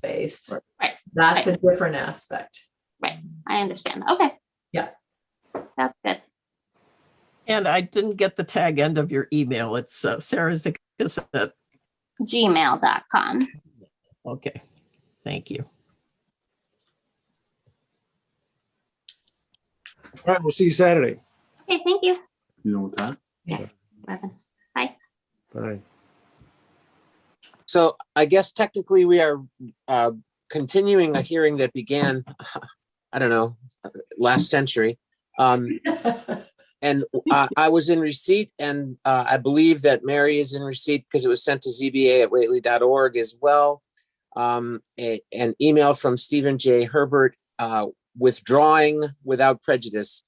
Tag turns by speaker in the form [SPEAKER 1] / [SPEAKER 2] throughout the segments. [SPEAKER 1] space.
[SPEAKER 2] Right.
[SPEAKER 3] Right,
[SPEAKER 1] That's a different aspect.
[SPEAKER 3] I understand. Okay.
[SPEAKER 1] Yeah.
[SPEAKER 3] That's good.
[SPEAKER 2] And I didn't get the tag end of your email. It's uh, Sarah Zikas at,
[SPEAKER 3] Gmail.com.
[SPEAKER 2] okay, thank you.
[SPEAKER 4] All right, we'll see you Saturday.
[SPEAKER 3] Okay, thank you.
[SPEAKER 5] You know what time?
[SPEAKER 3] Robin.
[SPEAKER 4] Bye.
[SPEAKER 6] So I guess technically we are uh, continuing a hearing that began, I don't know, last century. Um, And uh, I was in receipt and uh, I believe that Mary is in receipt because it was sent to ZBA at Whately.org as well. Um, a- An email from Stephen J. Herbert uh, withdrawing without prejudice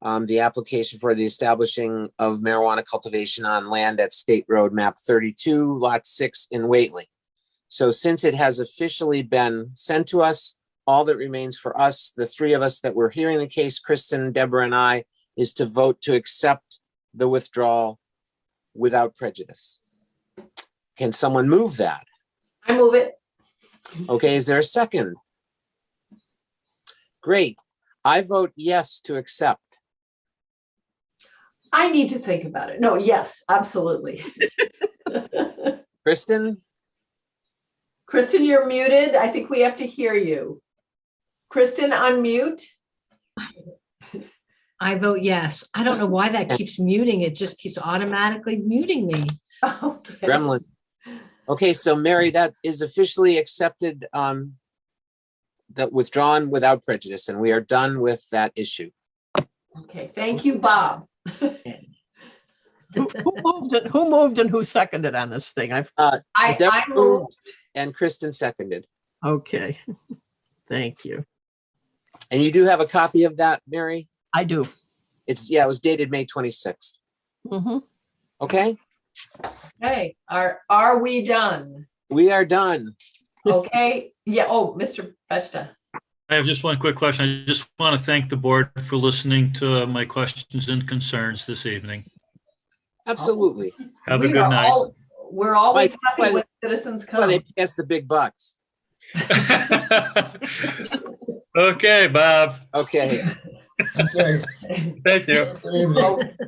[SPEAKER 6] um, the application for the establishing of marijuana cultivation on land at State Road Map 32, Lot 6 in Whately. So since it has officially been sent to us, all that remains for us, the three of us that were hearing the case, Kristen, Deborah, and I, is to vote to accept the withdrawal without prejudice. Can someone move that?
[SPEAKER 1] I move it.
[SPEAKER 6] Okay, is there a second? Great. I vote yes to accept.
[SPEAKER 1] I need to think about it. No, yes, absolutely.
[SPEAKER 6] Kristen,
[SPEAKER 1] Kristen, you're muted. I think we have to hear you. Kristen, unmute.
[SPEAKER 7] I vote yes. I don't know why that keeps muting. It just keeps automatically muting me.
[SPEAKER 1] Okay.
[SPEAKER 6] gremlin. Okay, so Mary, that is officially accepted, um, that withdrawn without prejudice, and we are done with that issue.
[SPEAKER 1] Okay, thank you, Bob.
[SPEAKER 2] Who who moved and who moved and who seconded on this thing? I've,
[SPEAKER 1] I, I
[SPEAKER 6] Deborah
[SPEAKER 1] move,
[SPEAKER 6] moved And Kristen seconded.
[SPEAKER 2] okay, thank you.
[SPEAKER 6] And you do have a copy of that, Mary?
[SPEAKER 2] I do.
[SPEAKER 6] It's, yeah, it was dated May twenty-sixth.
[SPEAKER 2] Mhm.
[SPEAKER 6] Okay,
[SPEAKER 1] okay, are, are we done?
[SPEAKER 6] we are done.
[SPEAKER 1] Okay, yeah, oh, Mr. Besta.
[SPEAKER 8] I have just one quick question. I just want to thank the board for listening to my questions and concerns this evening.
[SPEAKER 6] Absolutely.
[SPEAKER 8] Have a
[SPEAKER 1] We
[SPEAKER 8] good
[SPEAKER 1] are
[SPEAKER 8] night.
[SPEAKER 1] all- We're always
[SPEAKER 6] Mike,
[SPEAKER 1] happy
[SPEAKER 6] well-
[SPEAKER 1] when citizens
[SPEAKER 6] Well, they
[SPEAKER 1] come.
[SPEAKER 6] pay us the big bucks.
[SPEAKER 8] Okay, Bob.
[SPEAKER 6] Okay.
[SPEAKER 9] Okay,
[SPEAKER 8] Thank you.
[SPEAKER 9] good evening.